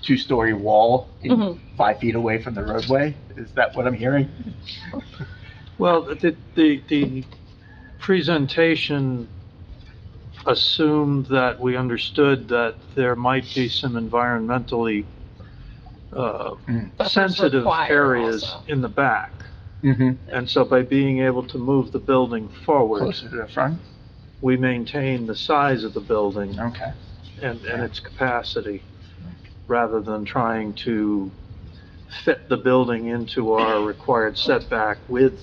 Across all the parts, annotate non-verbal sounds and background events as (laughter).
two-story wall in- Mhm. five feet away from the roadway? Is that what I'm hearing? Well, the, the, the presentation assumed that we understood that there might be some environmentally, uh, Buffers sensitive required areas also. in the back. Mm-hmm. And so by being able to move the building forward, Closer to the front? we maintain the size of the building Okay. and, and its capacity, rather than trying to fit the building into our required setback with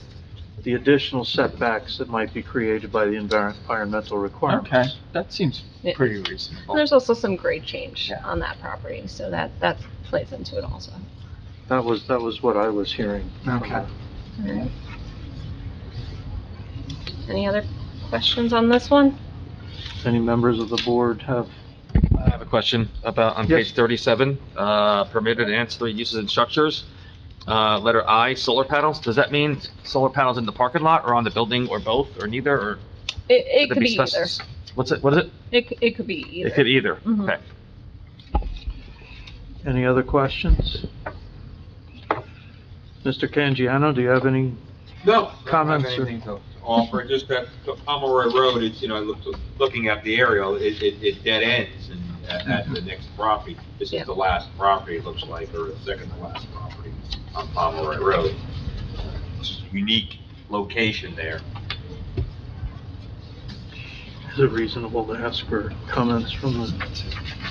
the additional setbacks that might be created by the envir- environmental Okay, requirements. that seems Yeah. pretty And reasonable. there's also some grade change Yeah. on that property, so that, that plays into it also. That was, that was what I was hearing. Okay. Any other questions on this one? Any members of the board have, I have a question about, on Yes. page 37, uh, permitted ancillary uses and structures. Uh, Letter I, solar panels, does that mean solar panels in the parking lot or on the building or both or neither or? It, it should could be either. spec- What's it, what is it? It, c- it could be It could either. either, Mhm. okay. any other questions? Mr. Canjiano, do you have any? No. Comments I or- don't have anything to to offer, just that the Pomeroy Road, it's, you know, I looked, looking at the aerial, it, it, it dead ends and at, at the next property. This Yeah. is the last property, it looks like, or the second to last property on Pomeroy Road. It's a Unique location there. Is it reasonable to ask for comments from the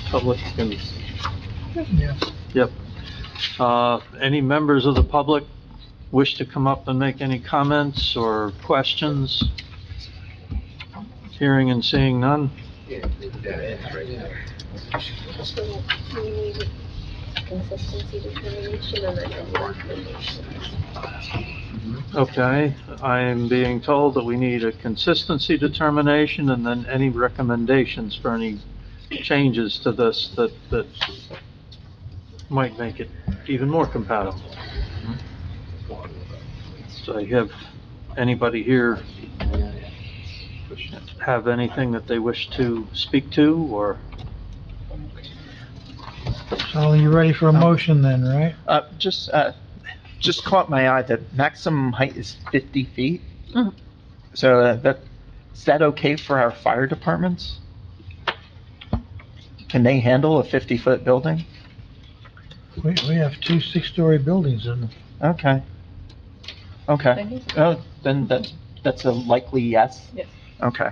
public? And- Yep. Uh, Any members of the public wish to come up and make any comments or questions? Hearing and seeing none? Yeah, it's dead ends right there. So we need consistency determination and then a recommendation. Okay, I am being told that we need a consistency determination and then any recommendations for any changes to this that, that might make it even more compatible. So I have anybody here have anything that they wish to speak to or? So you're ready for a motion then, right? Uh, just, uh, just caught my eye that maximum height is 50 feet. Mhm. So uh, that, is that okay for our fire departments? Can they handle a 50-foot building? We, we have two six-story buildings in the Okay. Okay. Thank you. Oh, then that, that's a likely yes? Yes. Okay.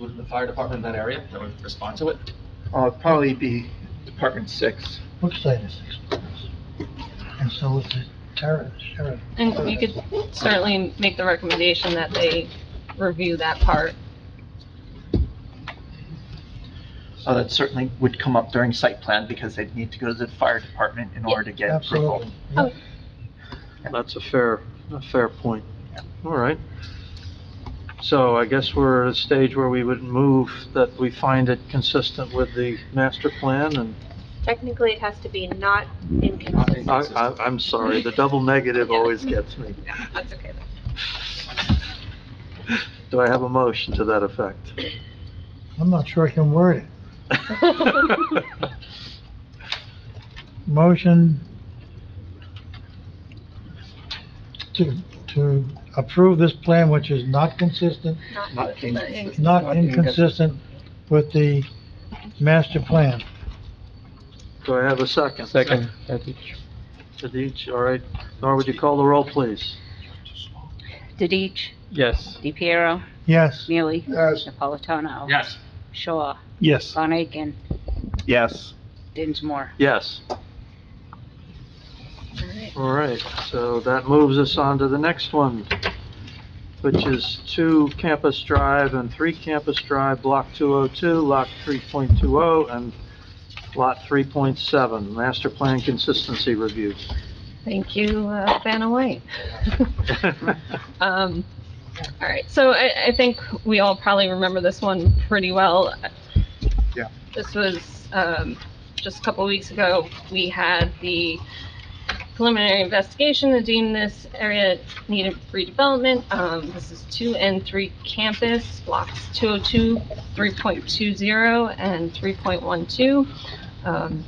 Would the fire department in that area, that would respond to it? Uh, it'd probably be Department Six. Brookside is six stories. And so is the terrace, sheriff. And you could certainly make the recommendation that they review that part. Uh, that certainly would come up during site plan because they'd need to go to the fire department in order to get approval. Absolutely. yeah. That's a fair, a fair point. All right. So I guess we're at a stage where we would move that we find it consistent with the master plan and Technically, it has to be not inconsistent. I, I, I'm sorry, the double negative always gets me. That's okay. Do I have a motion to that (laughs) effect? I'm not sure I can word it. Motion to, to approve this plan, which is not consistent, Not inconsistent. not inconsistent with the master plan. Do I have a second? Second. Tadich, all right. Nora, would you call the roll, please? Didich, Yes. DePiero, Yes. Neely, Yes. Napolitano. Yes. Shaw, Yes. Von Aiken, Yes. Dinsmore. Yes. All right, so that moves us on to the next one, which is 2 Campus Drive and 3 Campus Drive, Block 202, Lot 3.20, oh, and Lot 3.7, Master Plan Consistency Review. (laughs) Thank you, uh, Vanna White. (laughs) Um, all right, so I, I think we all probably remember this one pretty well. Yeah. This was, um, just a couple weeks ago, we had the preliminary investigation to deem this area needed redevelopment. Um, this is two and three campus, blocks 202, 3.20, and 3.12. Um,